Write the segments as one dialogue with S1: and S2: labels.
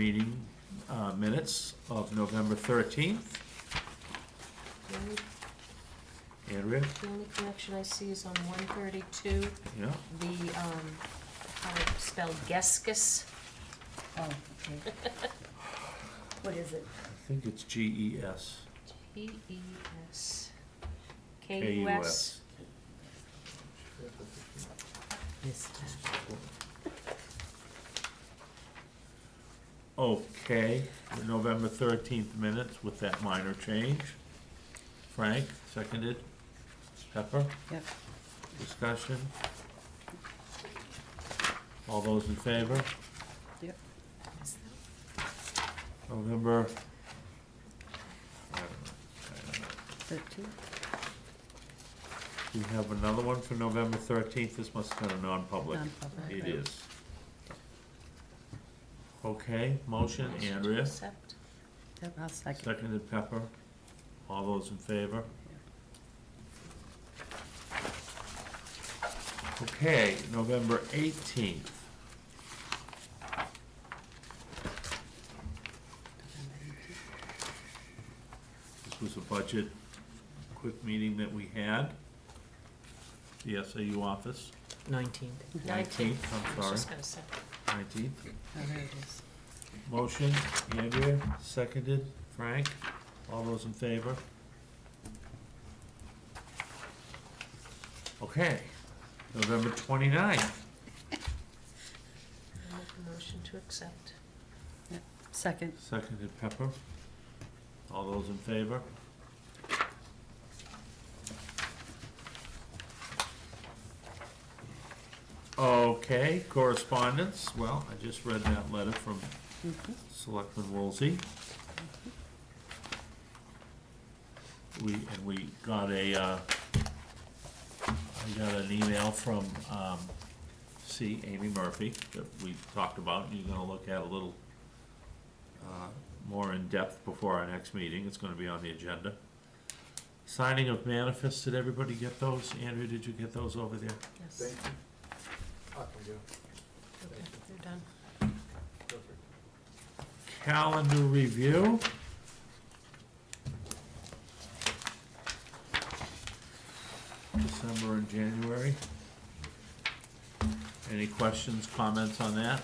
S1: meeting uh, minutes of November 13th.
S2: The only-
S1: Andrea,
S2: The only correction I see is on one thirty-two,
S1: yeah,
S2: the, um, how to spell Geskus.
S3: Oh, okay. What is it?
S1: I think it's E G-E-S.
S2: G E S K U S.
S3: This time.
S1: Okay, the November 13th minutes with that minor change. Frank, seconded. Pepper,
S3: Yep.
S1: discussion. All those in favor?
S3: Yep.
S1: November, I don't know, I don't know.
S3: Thirteen.
S1: We have another one for November thirteenth, this must have been a non-public.
S3: Non-public,
S1: It
S3: right.
S1: is. Okay, motion, Andrea,
S2: Accept.
S3: Yep, I'll second.
S1: seconded Pepper, all those in favor? Okay, November eighteenth, this was a budget quick meeting that we had. The SAU office,
S4: Nineteenth.
S1: nineteenth,
S2: I
S1: I'm
S2: was just
S1: sorry,
S2: gonna say,
S1: nineteenth.
S3: Oh, there it is.
S1: Motion, Andrea, seconded, Frank, all those in favor? Okay, November twenty-ninth,
S2: I make a motion to accept.
S3: Second.
S1: seconded Pepper, all those in favor? Okay, correspondence, well, I just read that letter from
S3: Mhm.
S1: Selectman Woolsey. We, and we got a, uh, I got an email from, um, C. Amy Murphy that we talked about, and you're gonna look at a little, uh, more in depth before our next meeting, it's gonna be on the agenda. Signing of manifests, did everybody get those? Andrew, did you get those over there?
S2: Yes.
S5: Thank
S2: Okay,
S5: you. Ah, there you
S2: you're done.
S5: go. Perfect.
S1: Calendar review. December and January. Any questions, comments on that?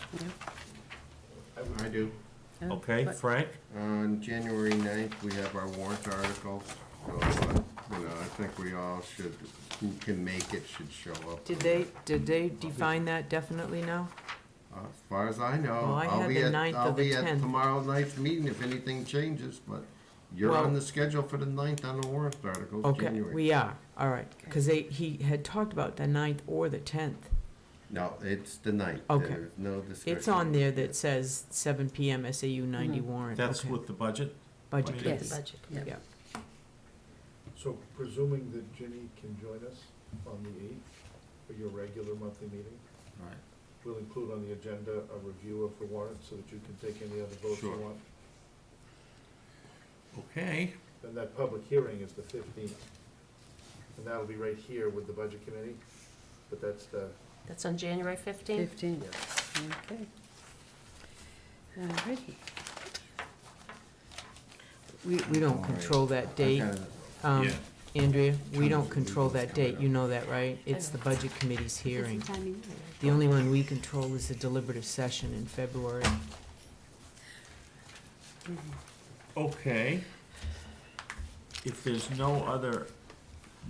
S6: I do.
S3: Oh,
S1: Okay,
S3: but-
S1: Frank?
S6: On January ninth, we have our warrant articles, so, uh, you know, I think we all should, who can make it should show up.
S4: Did they, did they define that definitely now?
S6: Uh, As far as I know,
S4: Well, I
S6: I'll
S4: had
S6: be
S4: the
S6: at,
S4: 9th or
S6: I'll
S4: the
S6: be at
S4: 10th.
S6: tomorrow night's meeting if anything changes, but you're
S4: Well-
S6: on the schedule for the ninth on the warrant articles,
S4: Okay,
S6: January.
S4: we are, all right, because they, he had talked about the ninth or the tenth.
S6: No, it's the ninth,
S4: Okay.
S6: there's no discussion.
S4: It's on there that says seven PM SAU
S2: Mm-hmm.
S4: ninety warrant.
S1: That's
S4: Okay.
S1: with the budget?
S4: Budget,
S1: Budget.
S3: Yes.
S4: yes,
S2: Budget.
S3: Yeah.
S4: yeah.
S5: So presuming that Ginny can join us on the eighth for your regular monthly meeting,
S6: Right.
S5: we'll include on the agenda a review of the warrant so that you can take any other votes you
S6: Sure.
S5: want.
S1: Okay,
S5: And that public hearing is the fifteenth. And that'll be right here with the budget committee, but that's the,
S2: That's on January fifteenth?
S3: Fifteen.
S5: yeah.
S3: Okay. Alrighty.
S4: We, we
S6: All
S4: don't
S6: right.
S4: control that date,
S6: Okay.
S4: um,
S1: Yeah.
S4: Andrea, we
S6: Terms
S4: don't
S6: of
S4: control
S6: meetings
S4: that date,
S6: coming
S4: you know that, right?
S2: I
S4: It's the
S2: know.
S4: budget committee's hearing.
S3: Timing.
S4: The only one we control is the deliberative session in February.
S1: okay. If there's no other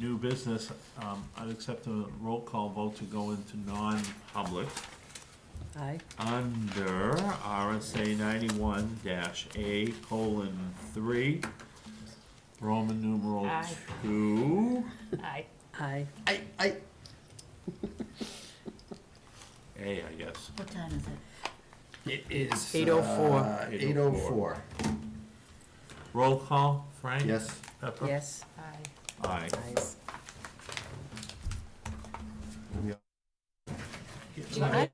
S1: new business, um, I'd accept a roll call vote to go into non-public.
S3: Aye.
S1: under RSA ninety-one dash A colon three, Roman numeral
S2: Aye.
S1: two,
S2: Aye.
S3: Aye.
S6: I, I,
S1: A, I guess.
S3: What time is it?
S6: it is.
S4: 8:04.
S6: Eight oh four,
S1: Roll call, Frank?
S6: yes.
S1: Pepper?
S3: Yes.
S2: Aye.
S1: Aye.
S3: Ayes.
S1: Getting late.